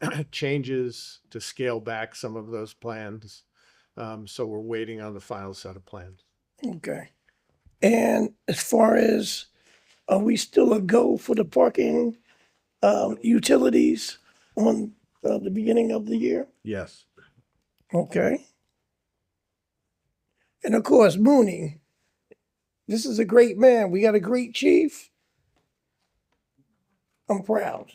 changes to scale back some of those plans. Um, so we're waiting on the final set of plans. Okay. And as far as, are we still a go for the parking, um, utilities on, uh, the beginning of the year? Yes. Okay. And of course, Mooney. This is a great man. We got a great chief. I'm proud.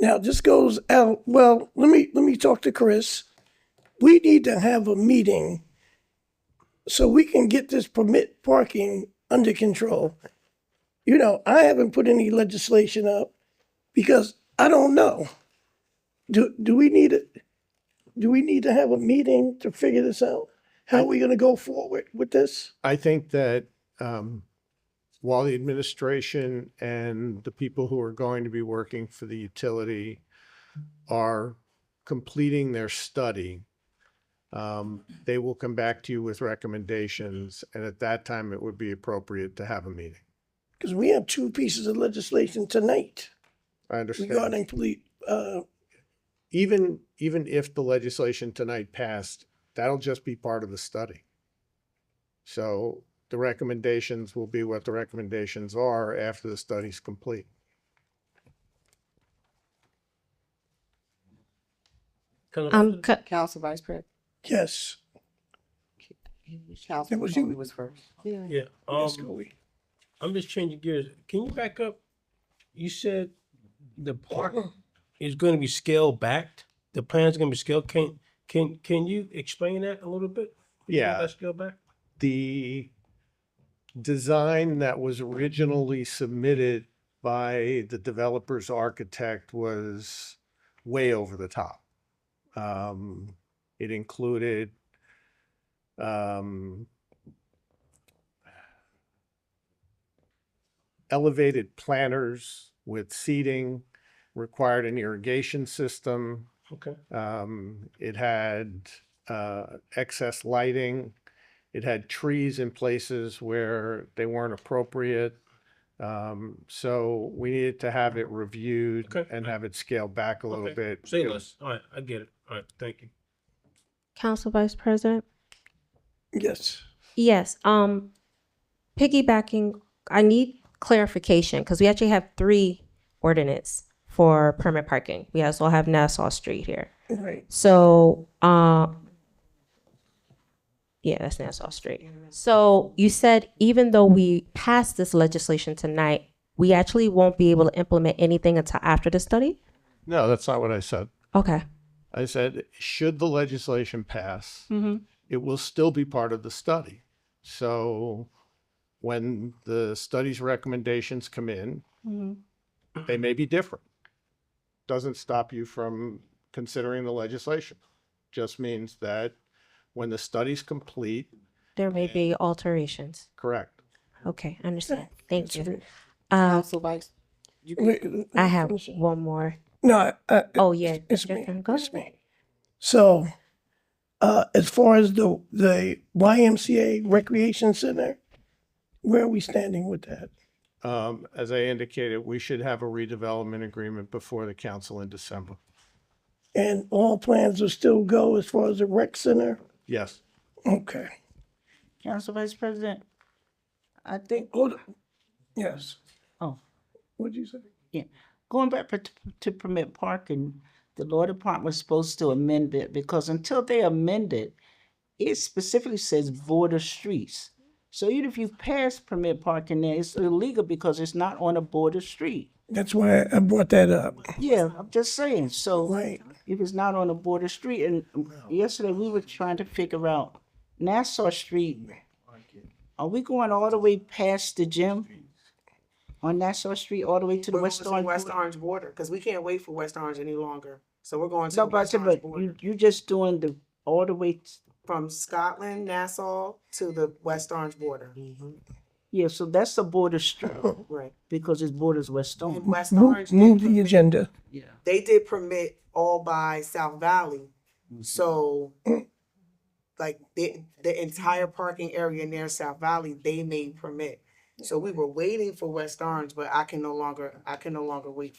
Now this goes out. Well, let me let me talk to Chris. We need to have a meeting so we can get this permit parking under control. You know, I haven't put any legislation up because I don't know. Do, do we need it? Do we need to have a meeting to figure this out? How are we gonna go forward with this? I think that um, while the administration and the people who are going to be working for the utility are completing their study, um, they will come back to you with recommendations. And at that time, it would be appropriate to have a meeting. Because we have two pieces of legislation tonight I understand. regarding police, uh, even even if the legislation tonight passed, that'll just be part of the study. So the recommendations will be what the recommendations are after the study's complete. Um, co- Council Vice President. yes. Council That was you. Conley was first. Yeah. Yeah, Ms. um, Cooley. I'm just changing gears. Can you back up? You said the park is gonna be scale backed. The plan's gonna be scale. Can, can, can you explain that a little bit? Yeah. That scale back? the design that was originally submitted by the developer's architect was way over the top. Um, it included, um, elevated planters with seating, required an irrigation system. Okay. Um, it had, uh, excess lighting. It had trees in places where they weren't appropriate. Um, so we needed to have it reviewed Okay. and have it scaled back a little Okay. bit. Say less. All right, I get it. All right, thank you. Council Vice President. Yes. Yes. Um, piggybacking, I need clarification because we actually have three ordinance for permit parking. We also have Nassau Street here. Right. So, um, yeah, that's Nassau Street. So you said even though we passed this legislation tonight, we actually won't be able to implement anything until after the study? No, that's not what I said. Okay. I said, should the legislation pass, it will still be part of the study. So when the study's recommendations come in, they may be different. Doesn't stop you from considering the legislation. Just means that when the study's complete, There may be alterations. correct. Okay, I understand. Thank you. Uh, Council Vice. You Wait, I have one more. No, I, Oh, yeah. It's me. Jeff, go It's ahead. me. So, uh, as far as the, the YMCA Recreation Center, where are we standing with that? Um, as I indicated, we should have a redevelopment agreement before the council in December. And all plans will still go as far as the rec center? Yes. Okay. Council Vice President, I think, Hold on. Yes. Oh. What'd you say? yeah, going back per- to permit parking, the law department was supposed to amend it because until they amend it, it specifically says border streets. So even if you pass permit parking there, it's illegal because it's not on a border street. That's why I brought that up. Yeah, I'm just saying, so Right. if it's not on a border street, and yesterday we were trying to figure out Nassau Street. Are we going all the way past the gym? On Nassau Street, all the way to the We're going West to Orange? West border? Orange border, because we can't wait for West Orange any longer. So we're going to. No, the but, West Orange but border. you, you just doing the, all the way, t- From Scotland, Nassau to the West Orange border, yeah, so that's the border street, right. because it borders West And Orange. West Orange, Move, did move the permit- agenda. Yeah. they did permit all by South Valley. So like the, the entire parking area near South Valley, they made permit. So we were waiting for West Orange, but I can no longer, I can no longer wait